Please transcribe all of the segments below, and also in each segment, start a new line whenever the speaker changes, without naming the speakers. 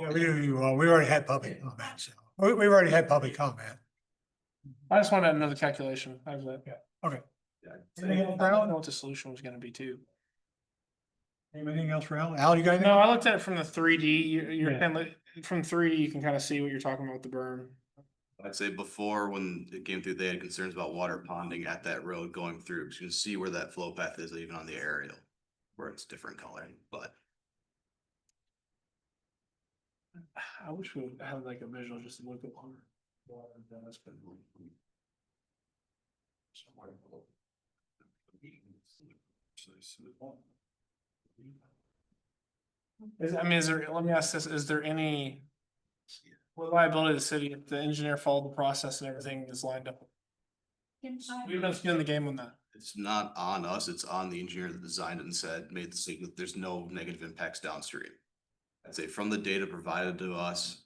Yeah, we do, well, we already had public comment, so, we, we've already had public comment.
I just wanted another calculation. I was like.
Yeah, okay. Anything else,
I don't know
Al?
what the solution was gonna be too.
Anything else, Al? Al, you got anything?
No, I looked at it from the three D, you're,
Yeah.
you're, kind of- from three D, you can kind of see what you're talking about with the berm.
I'd say before, when it came through, they had concerns about water ponding at that road going through, because you can see where that flow path is even on the aerial. Where it's different color, but
I wish we would have like a visual just to look at one. Is, I mean, is there, let me ask this, is there any? What liability of the city if the engineer followed the process and everything is lined up? We've been skin in the game on that.
it's not on us, it's on the engineer that designed it and said, made the statement, there's no negative impacts downstream. I'd say from the data provided to us.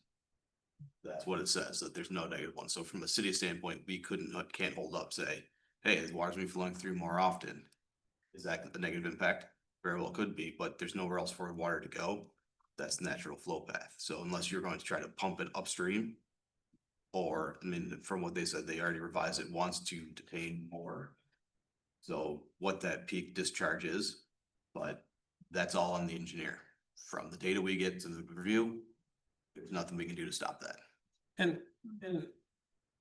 That's what it says, that there's no negative one. So from a city standpoint, we couldn't, uh, can't hold up, say, hey, the water's been flowing through more often. Is that the negative impact? Very well could be, but there's nowhere else for water to go. That's natural flow path. So unless you're going to try to pump it upstream. Or, I mean, from what they said, they already revised it once to detain more. So what that peak discharge is, but that's all on the engineer. From the data we get to the review, there's nothing we can do to stop that.
And, and,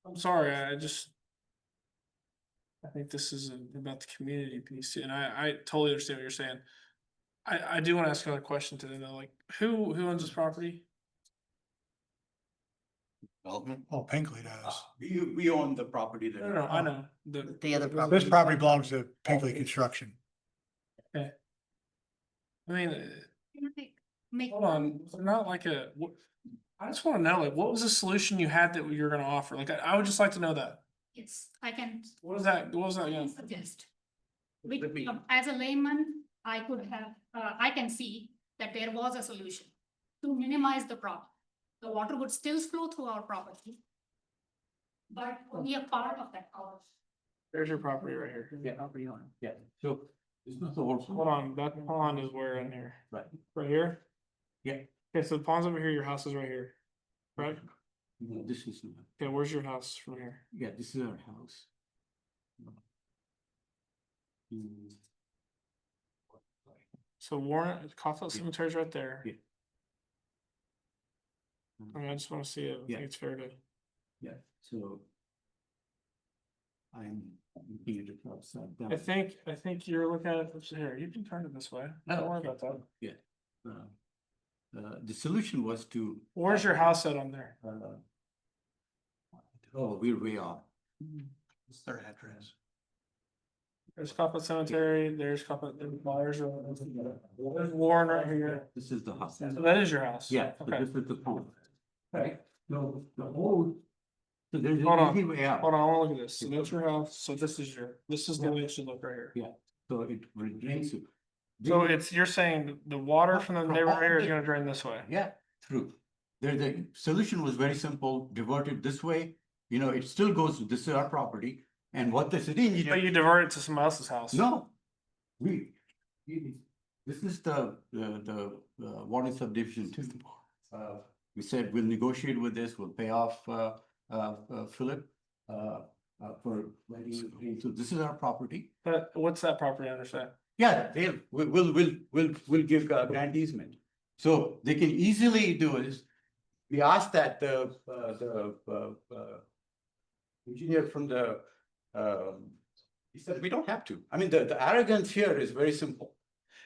I'm sorry, I just. I think this is a- about the community piece, and I, I totally understand what you're saying. I, I do wanna ask another question to them, though, like, who, who owns this property?
Development?
Oh, Pinkley does.
We, we own the property
No, no, no, I know, the,
The other property.
Uh, This property belongs to Pinkley Construction.
I mean, uh,
Make,
hold on, was there not like a, what? I just wanna know, like, what was the solution you had that you were gonna offer? Like, I, I would just like to know that.
yes, I can
What is that, what was that, yeah?
suggest. Which,
Let me-
um, as a layman, I could have, uh, I can see that there was a solution to minimize the problem. The water would still flow through our property. But only a part of that, problem.
There's your property right here.
Yeah. Yeah, so it's not the whole.
Hold on, that pond is where in here?
Right.
Right here?
Yeah.
Okay, so the pond's over here, your house is right here, right?
No, this is not,
Okay, where's your house from here?
yeah, this is our house. Hmm,
So Warren, Coffell Cemetery's right there.
Yeah.
I mean, I just wanna see it, I
Yeah.
think it's fair to,
Yeah, so. I'm looking at it upside down.
I think, I think you're looking at it from here, you can turn it this way, don't
Oh,
worry
okay.
about that.
Yeah. Uh, Uh, the solution was to,
Where's your house at on there?
uh. Oh, we're way off.
It's their address.
There's Coffell Cemetery, there's Coffell, there's Myers, there's Warren right here,
This is the house.
so that is your house?
Yeah, so
Okay,
this is the pond. Right, so the whole. So there's
Hold
an
on,
easy way
hold
out,
on, I wanna look at this, so that's your house, so this is your, this is the way it should look right here.
so it will drain you.
So
Drain-
it's, you're saying the water from the
From
neighbor
all
area is
the-
gonna drain this way?
Yeah, true. There, the solution was very simple, divert it this way, you know, it still goes, this is our property, and what the city
But
engineer,
you divert it to someone else's house.
no. We, this is the, the, the uh, water subdivision two. Uh, we said we'll negotiate with this, we'll pay off, uh, uh, uh, Philip, uh, uh, for letting, it drain. so this is our property.
But what's that property under that?
Yeah, they'll, we- we'll, we'll, we'll, we'll give uh, grant easement. So they can easily do is, we asked that the, uh, the, uh, uh, engineer from the, um, he said, we don't have to. I mean, the, the arrogance here is very simple.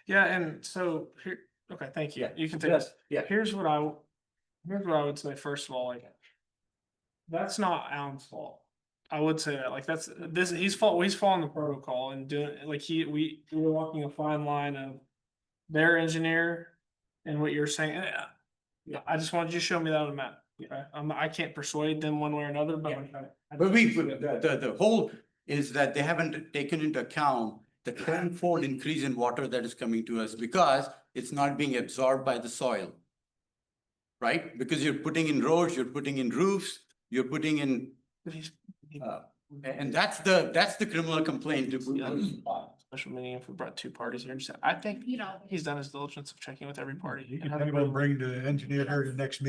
Yeah, and so here, okay, thank you.
Yeah.
You can take this.
Yeah,
Here's what I, w- here's what I would say, first of all, like. That's not Alan's fault. I would say that, like, that's, this, he's fault, he's following the protocol and doing, like, he, we, we we're walking a fine line of. Their engineer and what you're saying, and, uh, yeah, I just wanted you to show me that on the map. Okay, um, I can't persuade them one way or another, but.
Yeah.
like, I- I
but we,
just-
the, the, the whole is that they haven't taken into account the tenfold increase in water that is coming to us because it's not being absorbed by the soil. Right? Because you're putting in roads, you're putting in roofs, you're putting in
But he's- he-
Uh, a- And that's the, that's the criminal complaint. that we-
Yeah, this is fine. Special meeting if we brought two parties here, just- I think
you know.
he's done his diligence of checking with every party.
You
and
can
having
think about
both-
bringing the engineer here to the next meeting